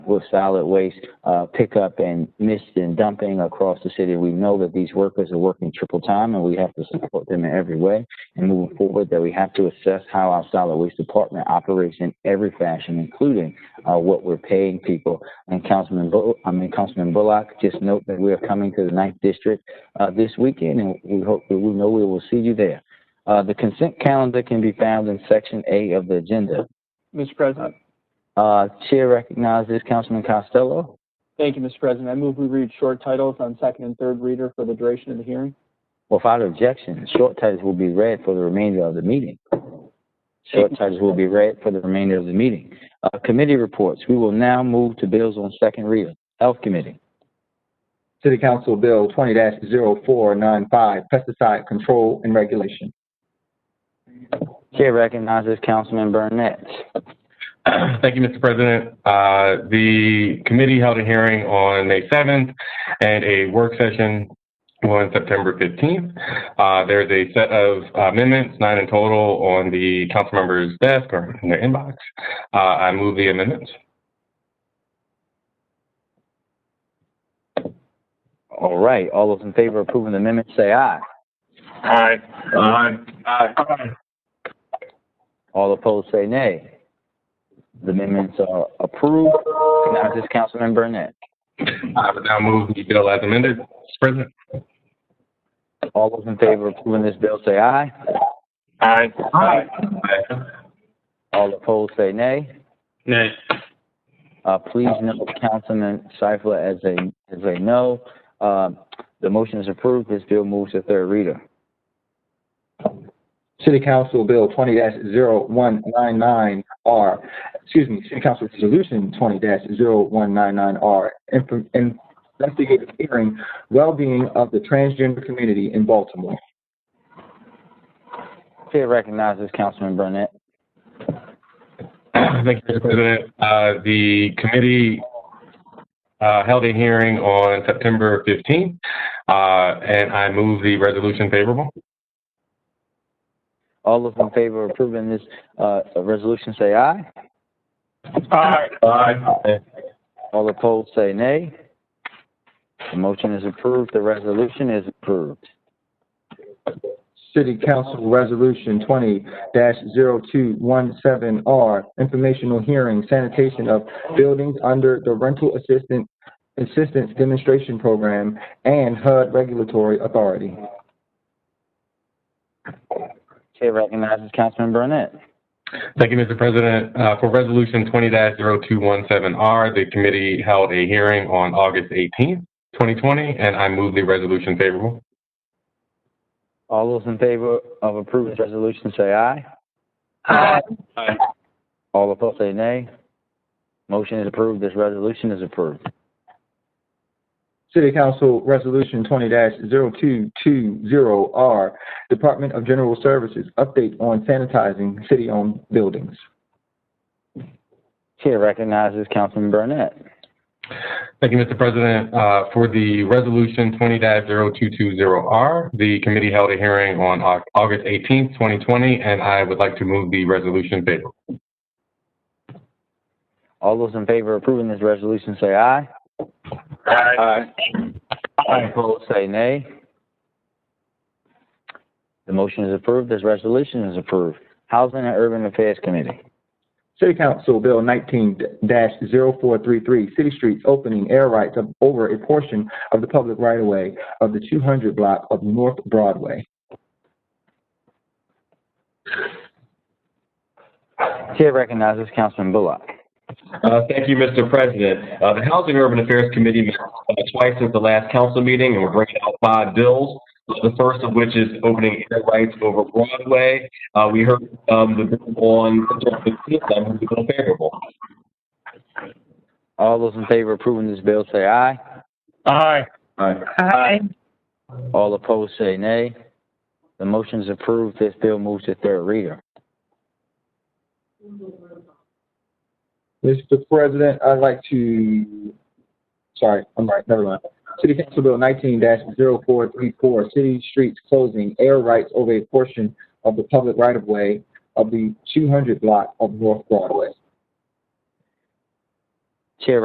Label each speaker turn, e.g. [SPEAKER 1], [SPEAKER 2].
[SPEAKER 1] with solid waste uh, pickup and mist and dumping across the city. We know that these workers are working triple time and we have to support them in every way. And moving forward, that we have to assess how our solid waste department operates in every fashion, including uh, what we're paying people. And Councilman, Bull- I mean, Councilman Bullock, just note that we are coming to the ninth district uh, this weekend and we hope, we know we will see you there. Uh, the consent calendar can be found in section A of the agenda.
[SPEAKER 2] Mr. President.
[SPEAKER 1] Uh, Chair recognizes Councilman Costello.
[SPEAKER 2] Thank you, Mr. President. I move we read short titles on second and third reader for the duration of the hearing.
[SPEAKER 1] Without objection, short titles will be read for the remainder of the meeting. Short titles will be read for the remainder of the meeting. Uh, committee reports, we will now move to bills on second reader. Health Committee,
[SPEAKER 3] City Council Bill twenty 495 pesticide control and regulation.
[SPEAKER 1] Chair recognizes Councilman Burnett.
[SPEAKER 4] Thank you, Mr. President. Uh, The committee held a hearing on May 7th and a work session on September 15th. Uh, There's a set of amendments, nine in total, on the council members' desk or in their inbox. Uh, I move the amendments.
[SPEAKER 1] All right, all those in favor of approving the amendment, say aye.
[SPEAKER 4] Aye. Aye. Aye.
[SPEAKER 1] All opposed, say nay. The amendments are approved. Recognizes Councilman Burnett.
[SPEAKER 4] I would now move the bill as amended, Mr. President.
[SPEAKER 1] All those in favor of approving this bill, say aye.
[SPEAKER 4] Aye. Aye.
[SPEAKER 1] All opposed, say nay.
[SPEAKER 4] Nay.
[SPEAKER 1] Uh, please note Councilman Seifler as a, as a no. Um the motion is approved. This bill moves to third reader.
[SPEAKER 3] City Council Bill twenty 199 R, excuse me, City Council Resolution twenty 199 R, investigative hearing, well-being of the transgender community in Baltimore.
[SPEAKER 1] Chair recognizes Councilman Burnett.
[SPEAKER 4] Thank you, Mr. President. Uh, The committee uh, held a hearing on September 15th, uh, and I move the resolution favorable.
[SPEAKER 1] All those in favor of approving this, uh, resolution, say aye.
[SPEAKER 4] Aye. Aye.
[SPEAKER 1] All opposed, say nay. The motion is approved. The resolution is approved.
[SPEAKER 3] City Council Resolution twenty 217 R, informational hearing sanitation of buildings under the Rental Assistance, Assistance Demonstration Program and HUD Regulatory Authority.
[SPEAKER 1] Chair recognizes Councilman Burnett.
[SPEAKER 4] Thank you, Mr. President. Uh, For Resolution 20-0217R, the committee held a hearing on August 18th, 2020, and I move the resolution favorable.
[SPEAKER 1] All those in favor of approving this resolution, say aye.
[SPEAKER 4] Aye.
[SPEAKER 1] All opposed, say nay. Motion is approved. This resolution is approved.
[SPEAKER 3] City Council Resolution twenty 220 R, Department of General Services, update on sanitizing city-owned buildings.
[SPEAKER 1] Chair recognizes Councilman Burnett.
[SPEAKER 4] Thank you, Mr. President. Uh, For the Resolution 20-0220R, the committee held a hearing on Au- August 18th, 2020, and I would like to move the resolution favorable.
[SPEAKER 1] All those in favor of approving this resolution, say aye.
[SPEAKER 4] Aye.
[SPEAKER 1] All opposed, say nay. The motion is approved. This resolution is approved. Housing and Urban Affairs Committee.
[SPEAKER 3] City Council Bill nineteen 433 City Streets Opening Air Rights of- over a portion of the public right-of-way of the two hundred block of North Broadway.
[SPEAKER 1] Chair recognizes Councilman Bullock.
[SPEAKER 5] Uh, Thank you, Mr. President. Uh, The Housing and Urban Affairs Committee met uh, twice since the last council meeting, and we're bringing out five bills. The first of which is opening air rights over Broadway. Uh, We heard um, the bill on September 15th, I'm going to be favorable.
[SPEAKER 1] All those in favor of approving this bill, say aye.
[SPEAKER 4] Aye.
[SPEAKER 1] All opposed, say nay. The motion is approved. This bill moves to third reader.
[SPEAKER 3] Mr. President, I'd like to, sorry, I'm right, never mind. City Council Bill nineteen 434 City Streets Closing Air Rights over a portion of the public right-of-way of the two hundred block of North Broadway.